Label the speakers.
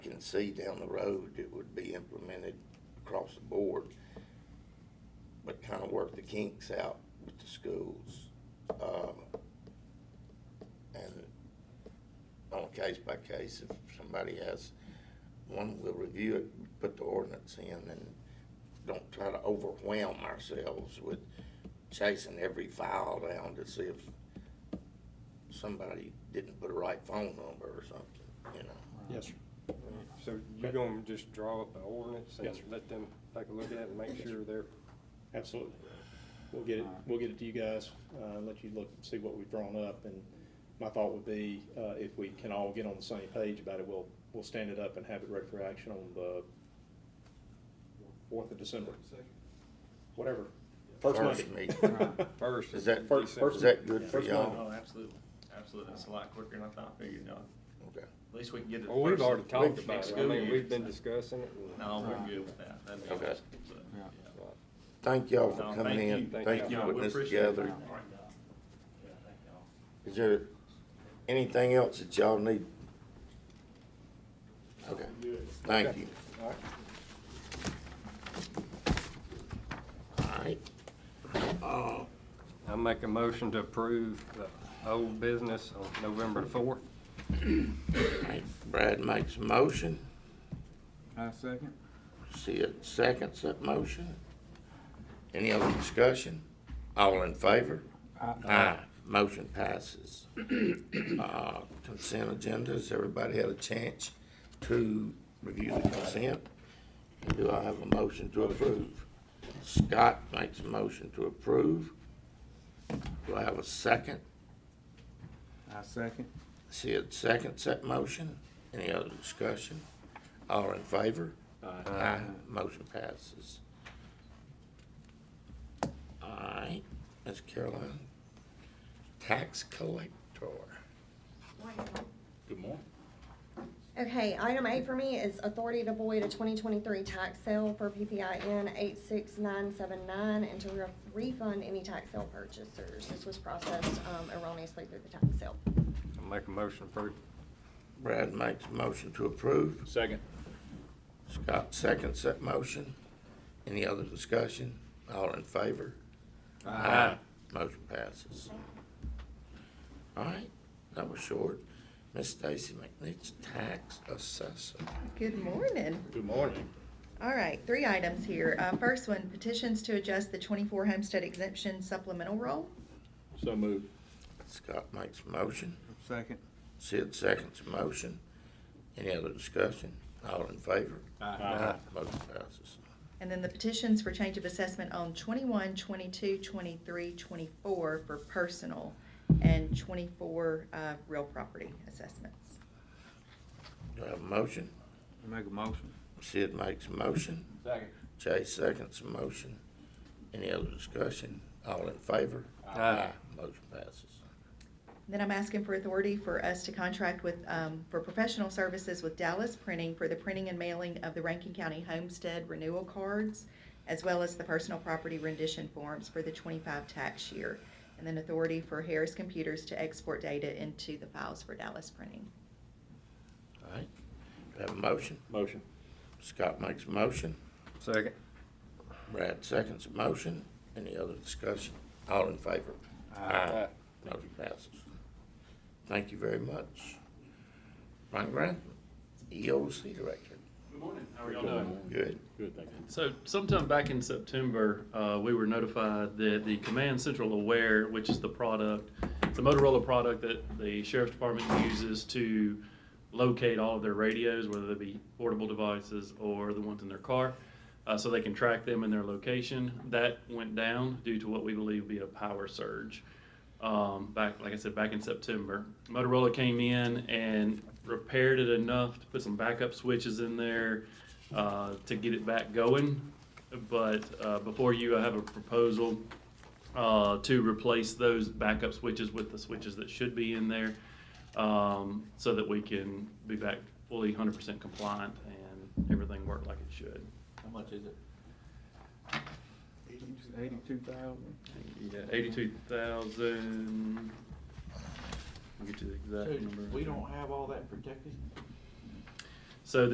Speaker 1: can see down the road, it would be implemented across the board. But kind of work the kinks out with the schools. um, And on a case by case, if somebody has one, we'll review it, put the ordinance in and don't try to overwhelm ourselves with chasing every file down to see if somebody didn't put a right phone number or something, you know?
Speaker 2: Yes, sir.
Speaker 3: So you're gonna just draw up an ordinance and
Speaker 2: Yes, sir.
Speaker 3: let them take a look at it and make sure they're,
Speaker 2: absolutely. We'll get it, we'll get it to you guys, uh, and let you look, see what we've drawn up, and my thought would be, uh, if we can all get on the same page about it, we'll, we'll stand it up and have it ready for action on the fourth of December. Whatever. First
Speaker 1: First
Speaker 2: Monday.
Speaker 1: meeting.
Speaker 3: first.
Speaker 1: Is that,
Speaker 2: First-
Speaker 3: December.
Speaker 2: first-
Speaker 1: is that good for
Speaker 2: first Monday.
Speaker 1: y'all?
Speaker 4: Oh, absolutely, absolutely. That's a lot quicker than I thought, figured out.
Speaker 1: Okay.
Speaker 4: At least we can get it.
Speaker 3: Well, we've
Speaker 4: first
Speaker 3: already talked
Speaker 4: next
Speaker 3: about it. I
Speaker 4: school
Speaker 3: mean,
Speaker 4: year.
Speaker 3: we've been discussing it. and-
Speaker 4: No, we're good with that. That'd be
Speaker 1: Okay.
Speaker 4: awesome. So,
Speaker 5: Yeah.
Speaker 4: yeah.
Speaker 3: Right.
Speaker 1: Thank y'all for
Speaker 4: No,
Speaker 1: coming
Speaker 4: thank
Speaker 1: in.
Speaker 4: you.
Speaker 1: Thank you
Speaker 4: Yeah,
Speaker 1: for
Speaker 4: we
Speaker 1: putting this
Speaker 4: appreciate it.
Speaker 1: together.
Speaker 4: All right, y'all. Yeah, thank y'all.
Speaker 1: Is there anything else that y'all need? Okay, thank you.
Speaker 3: All right.
Speaker 1: All right.
Speaker 3: I make a motion to approve the old business on November the fourth.
Speaker 1: All right. Brad makes a motion.
Speaker 5: I second.
Speaker 1: See it seconds that motion. Any other discussion? All in favor? Aye. Motion passes. Uh, Consent agenda, has everybody had a chance to review the consent? Do I have a motion to approve? Scott makes a motion to approve. Do I have a second?
Speaker 5: I second.
Speaker 1: Sid seconds that motion. Any other discussion? All in favor? Aye. Motion passes. All right, Ms. Caroline, tax collector.
Speaker 2: Good morning.
Speaker 6: Okay, item eight for me is authority to void a twenty twenty-three tax sale for PPIN eight six nine seven nine and to re- refund any tax sale purchasers. This was processed um, erroneously through the tax sale.
Speaker 3: I make a motion to approve.
Speaker 1: Brad makes a motion to approve.
Speaker 2: Second.
Speaker 1: Scott seconds that motion. Any other discussion? All in favor? Aye. Motion passes. All right, that was short. Ms. Stacy McNeach, tax assessor.
Speaker 7: Good morning.
Speaker 2: Good morning.
Speaker 7: All right, three items here. Uh, First one, petitions to adjust the 24 homestead exemption supplemental roll.
Speaker 2: So moved.
Speaker 1: Scott makes a motion.
Speaker 5: Second.
Speaker 1: Sid seconds the motion. Any other discussion? All in favor?
Speaker 2: Aye.
Speaker 1: Motion passes.
Speaker 7: And then the petitions for change of assessment on 21, 22, 23, 24 for personal and 24 uh, real property assessments.
Speaker 1: Do I have a motion?
Speaker 5: Make a motion.
Speaker 1: Sid makes a motion.
Speaker 5: Second.
Speaker 1: Jay seconds the motion. Any other discussion? All in favor? Motion passes.
Speaker 7: Then I'm asking for authority for us to contract with, um, for professional services with Dallas Printing for the printing and mailing of the Rankin County Homestead Renewal Cards, as well as the personal property rendition forms for the twenty-five tax year. And then authority for Harris Computers to export data into the files for Dallas Printing.
Speaker 1: All right. Do I have a motion?
Speaker 2: Motion.
Speaker 1: Scott makes a motion.
Speaker 3: Second.
Speaker 1: Brad seconds the motion. Any other discussion? All in favor? Aye. Motion passes. Thank you very much. Ron Grant, EOC Director.
Speaker 8: Good morning, how are y'all doing?
Speaker 1: Good.
Speaker 2: Good, thank you.
Speaker 8: So sometime back in September, uh, we were notified that the Command Central Aware, which is the product, it's a Motorola product that the sheriff's department uses to locate all of their radios, whether they be portable devices or the ones in their car, uh, so they can track them in their location. That went down due to what we believe to be a power surge. um, back, like I said, back in September. Motorola came in and repaired it enough to put some backup switches in there uh, to get it back going. But uh, before you, I have a proposal uh, to replace those backup switches with the switches that should be in there um, so that we can be back fully 100% compliant and everything work like it should.
Speaker 5: How much is it? Eighty-two thousand.
Speaker 8: Yeah, 82,000. I'll get you the exact number.
Speaker 9: We don't have all that protected?